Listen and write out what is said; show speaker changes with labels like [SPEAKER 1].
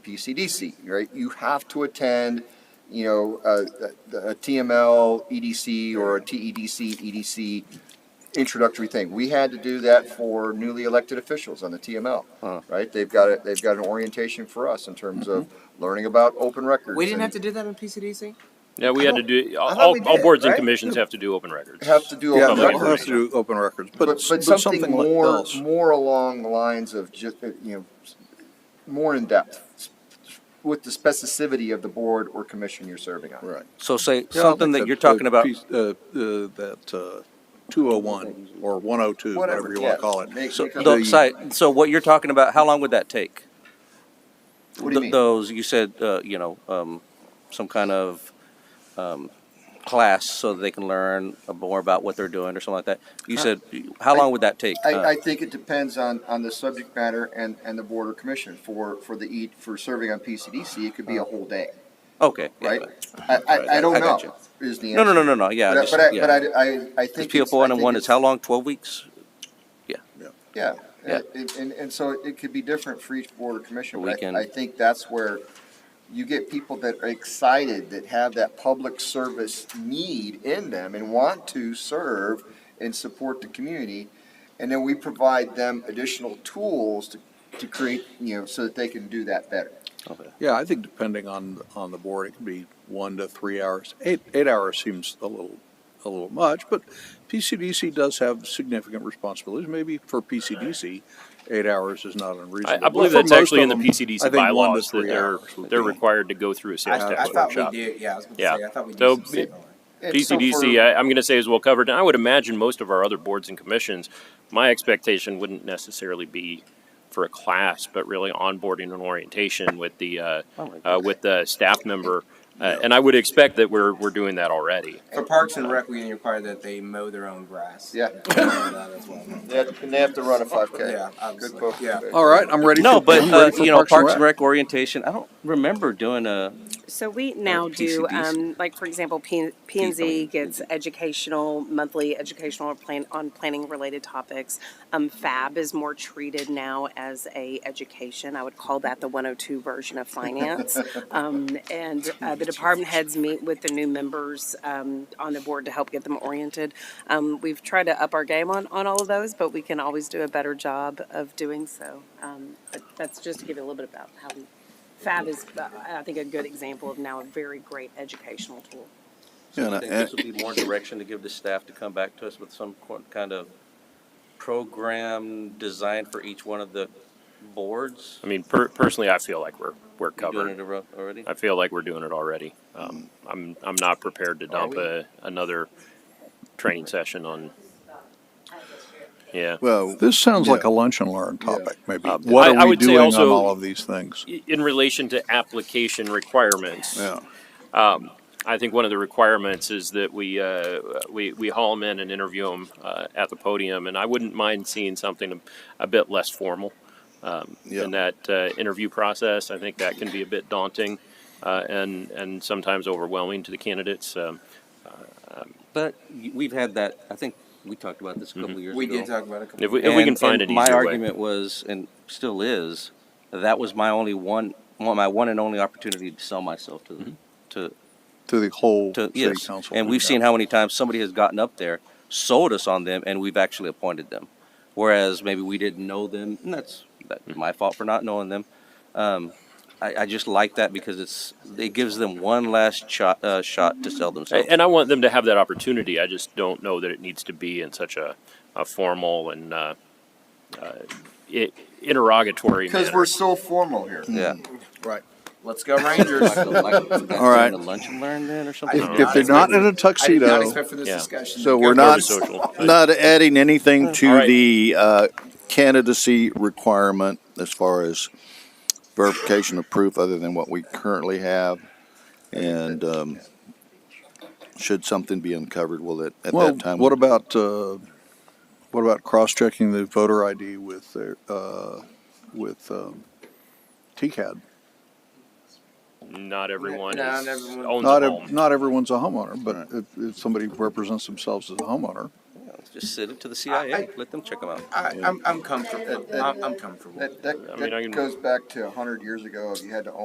[SPEAKER 1] PCDC, right? You have to attend, you know, a, a, a TML, EDC, E or a E TEDC, EDC introductory thing. We had to do that for newly elected officials on the TML, right? They've got it, they've got an orientation for us in terms of
[SPEAKER 2] Mm-hmm.
[SPEAKER 1] learning about open records.
[SPEAKER 3] We didn't
[SPEAKER 1] and
[SPEAKER 3] have to do that on PCDC?
[SPEAKER 4] Yeah, we had to
[SPEAKER 1] I
[SPEAKER 4] do, all,
[SPEAKER 1] thought we
[SPEAKER 4] all
[SPEAKER 1] did,
[SPEAKER 4] boards and
[SPEAKER 1] right?
[SPEAKER 4] commissions have to do open records.
[SPEAKER 1] Have to do.
[SPEAKER 2] Yeah,
[SPEAKER 1] open
[SPEAKER 2] that
[SPEAKER 4] Public
[SPEAKER 1] records.
[SPEAKER 2] has to do with open records, but,
[SPEAKER 1] But, but
[SPEAKER 2] something
[SPEAKER 1] something
[SPEAKER 2] like
[SPEAKER 1] more,
[SPEAKER 2] else.
[SPEAKER 1] more along the lines of just, uh, you know, more in depth with the specificity of the board or commission you're serving on.
[SPEAKER 2] Right.
[SPEAKER 5] So say
[SPEAKER 2] Yeah,
[SPEAKER 5] something
[SPEAKER 2] like
[SPEAKER 5] that
[SPEAKER 2] the-
[SPEAKER 5] you're talking
[SPEAKER 2] the
[SPEAKER 5] about,
[SPEAKER 2] piece- Uh, uh, that, uh, two oh one or one oh two, whatever
[SPEAKER 1] Whatever,
[SPEAKER 2] you wanna
[SPEAKER 1] yeah.
[SPEAKER 2] call it.
[SPEAKER 1] Make-
[SPEAKER 5] so,
[SPEAKER 1] make up
[SPEAKER 5] the
[SPEAKER 1] the-
[SPEAKER 5] site- so what you're talking about, how long would that take?
[SPEAKER 1] What do you
[SPEAKER 5] Th-
[SPEAKER 1] mean?
[SPEAKER 5] Those, you said, uh, you know, um, some kind of, um, class so that they can learn more about what they're doing or something like that. You said, how long would that take? Uh,
[SPEAKER 1] I, I think it depends on, on the subject matter and, and the board or commission. For, for the E, for serving on PCDC, it could be a whole day,
[SPEAKER 5] Uh, Okay. Uh-huh. yeah,
[SPEAKER 1] right? I, I, I don't
[SPEAKER 5] I
[SPEAKER 1] know,
[SPEAKER 5] got you.
[SPEAKER 1] is the
[SPEAKER 5] No,
[SPEAKER 1] answer.
[SPEAKER 5] no, no, no, no, yeah.
[SPEAKER 1] But I-
[SPEAKER 5] just-
[SPEAKER 1] but I,
[SPEAKER 5] yeah.
[SPEAKER 1] but I, I, I think.
[SPEAKER 5] Because PL
[SPEAKER 1] it's- I
[SPEAKER 5] one and
[SPEAKER 1] think
[SPEAKER 5] one
[SPEAKER 1] it's-
[SPEAKER 5] is how long, twelve weeks?
[SPEAKER 1] Yeah,
[SPEAKER 5] Yeah.
[SPEAKER 1] and, and, and so it could be different for each board or commission,
[SPEAKER 5] We
[SPEAKER 1] but
[SPEAKER 5] can-
[SPEAKER 1] I, I think that's where you get people that are excited, that have that public service need in them and want to serve and support the community. And then we provide them additional tools to, to create, you know, so that they can do that better.
[SPEAKER 5] Okay.
[SPEAKER 2] Yeah, I think depending on, on the board, it could be one to three hours. Eight, eight hours seems a little, a little much, but PCDC does have significant responsibilities. Maybe for PCDC, eight hours is not
[SPEAKER 4] I,
[SPEAKER 2] unreasonable.
[SPEAKER 4] I believe
[SPEAKER 2] For
[SPEAKER 4] that's
[SPEAKER 2] most
[SPEAKER 4] actually in
[SPEAKER 2] of
[SPEAKER 4] the
[SPEAKER 2] them,
[SPEAKER 4] PCDC
[SPEAKER 2] I think one to
[SPEAKER 4] bylaws that
[SPEAKER 2] three
[SPEAKER 4] they're,
[SPEAKER 2] hours would
[SPEAKER 4] they're
[SPEAKER 2] be-
[SPEAKER 4] required to go through a sales
[SPEAKER 3] I
[SPEAKER 4] tax
[SPEAKER 3] thought we
[SPEAKER 4] workshop.
[SPEAKER 3] did, yeah, I was gonna
[SPEAKER 4] Yeah.
[SPEAKER 3] say, I thought we did
[SPEAKER 4] So,
[SPEAKER 3] some signal.
[SPEAKER 1] And so
[SPEAKER 4] PCDC,
[SPEAKER 1] for-
[SPEAKER 4] I, I'm going to say is well covered, and I would imagine most of our other boards and commissions, my expectation wouldn't necessarily be for a class, but really onboarding and orientation with the, uh, uh, with the staff member. Uh, and I would expect that we're, we're doing that already.
[SPEAKER 3] For Parks and uh, Rec, we require that they mow their own grass.
[SPEAKER 1] Yeah.
[SPEAKER 3] That as well.
[SPEAKER 1] They have- And they have to run a five K.
[SPEAKER 3] Yeah,
[SPEAKER 1] Good
[SPEAKER 3] obviously,
[SPEAKER 1] poke.
[SPEAKER 3] yeah.
[SPEAKER 2] All right, I'm ready.
[SPEAKER 5] No,
[SPEAKER 2] for-
[SPEAKER 5] but,
[SPEAKER 2] I'm
[SPEAKER 5] uh,
[SPEAKER 2] ready for
[SPEAKER 5] you know, Parks
[SPEAKER 2] Rec.
[SPEAKER 5] and Rec orientation, I don't remember doing a,
[SPEAKER 6] So we now do, um, like, for example, P and Z gets educational, monthly educational plan, on planning-related topics. Um, FAB is more treated now as a education. I would call that the one oh two version of finance. Um, and, uh, the department heads meet with the new members, um, on the board to help get them oriented. Um, we've tried to up our game on, on all of those, but we can always do a better job of doing so. Um, but that's just to give you a little bit about how we Fab is, uh, I think, a good example of now a very great educational tool.
[SPEAKER 5] So
[SPEAKER 2] Yeah,
[SPEAKER 5] I
[SPEAKER 2] and
[SPEAKER 5] think
[SPEAKER 2] I-
[SPEAKER 5] this will be more direction to give the staff to come back to us with some co- kind of program designed for each one of the boards.
[SPEAKER 4] I mean, per- personally, I feel like we're, we're
[SPEAKER 5] You Doing
[SPEAKER 4] covered.
[SPEAKER 5] it ar- already?
[SPEAKER 4] I feel like we're doing it already. Um, I'm, I'm not prepared to dump a, another training session on, yeah.
[SPEAKER 7] Well,
[SPEAKER 2] This sounds
[SPEAKER 7] Yeah.
[SPEAKER 2] like a lunch and learn topic, maybe.
[SPEAKER 4] Uh,
[SPEAKER 2] What
[SPEAKER 4] I- I
[SPEAKER 2] are we
[SPEAKER 4] would say
[SPEAKER 2] doing on
[SPEAKER 4] also-
[SPEAKER 2] all of these things?
[SPEAKER 4] I- In relation to application requirements,
[SPEAKER 2] Yeah.
[SPEAKER 4] I think one of the requirements is that we, uh, we, we haul them in and interview them, uh, at the podium. And I wouldn't mind seeing something a bit less formal, um,
[SPEAKER 7] Yeah.
[SPEAKER 4] in that, uh, interview process. I think that can be a bit daunting, uh, and, and sometimes overwhelming to the candidates. Um,
[SPEAKER 5] But y- we've had that, I think we talked about this a couple of years ago.
[SPEAKER 3] We did talk about a couple.
[SPEAKER 4] if we, Mm-hmm. if we can
[SPEAKER 5] And-
[SPEAKER 4] find
[SPEAKER 5] and
[SPEAKER 4] an easier
[SPEAKER 5] My
[SPEAKER 4] way.
[SPEAKER 5] argument was, and still is, that was my only one, one- my one and only opportunity to sell myself to, the
[SPEAKER 4] Mm-hmm.
[SPEAKER 5] to,
[SPEAKER 2] To the whole
[SPEAKER 5] to,
[SPEAKER 2] city
[SPEAKER 5] yes.
[SPEAKER 2] council.
[SPEAKER 5] And we've
[SPEAKER 2] Yeah.
[SPEAKER 5] seen how many times somebody has gotten up there, sold us on them, and we've actually appointed them. Whereas maybe we didn't know them, and that's that's my fault for not knowing them. Um, I, I just like that because it's, it gives them one last shot, uh, shot to sell themselves.
[SPEAKER 4] And I want them to have that opportunity. I just don't know that it needs to be in such a, a formal and, uh, uh, i- interrogatory manner.
[SPEAKER 1] Cause we're so formal here.
[SPEAKER 5] Yeah.
[SPEAKER 2] Right.
[SPEAKER 3] Let's go Rangers.
[SPEAKER 5] All right.
[SPEAKER 2] right.
[SPEAKER 5] Lunch and learn then or something?
[SPEAKER 3] I did
[SPEAKER 2] If they're not in a
[SPEAKER 3] I did not
[SPEAKER 2] tuxedo,
[SPEAKER 3] expect for this
[SPEAKER 4] Yeah.
[SPEAKER 3] discussion.
[SPEAKER 7] so
[SPEAKER 3] to
[SPEAKER 7] we're
[SPEAKER 3] go
[SPEAKER 7] not,
[SPEAKER 3] this-
[SPEAKER 4] social.
[SPEAKER 7] not adding anything
[SPEAKER 4] All
[SPEAKER 7] to
[SPEAKER 4] right.
[SPEAKER 7] the uh, candidacy requirement as far as verification of proof other than what we currently have. And um, should something be uncovered, will it, at
[SPEAKER 2] well,
[SPEAKER 7] that time?
[SPEAKER 2] what about, uh, what about cross-checking the voter ID with their, uh, with, um, TCAD?
[SPEAKER 4] Not everyone
[SPEAKER 3] Not
[SPEAKER 4] is,
[SPEAKER 3] everyone.
[SPEAKER 4] owns
[SPEAKER 2] Not,
[SPEAKER 4] a
[SPEAKER 2] ev-
[SPEAKER 4] home.
[SPEAKER 2] not everyone's a homeowner, but if, if somebody represents themselves as a homeowner,
[SPEAKER 5] Just send it to the CIA. Let them check them out.
[SPEAKER 3] I, I'm, I'm comfortable. I'm, I'm comfortable.
[SPEAKER 1] That, that,
[SPEAKER 4] I mean,
[SPEAKER 1] that
[SPEAKER 4] I can-
[SPEAKER 1] goes back to a hundred years ago, if you had to own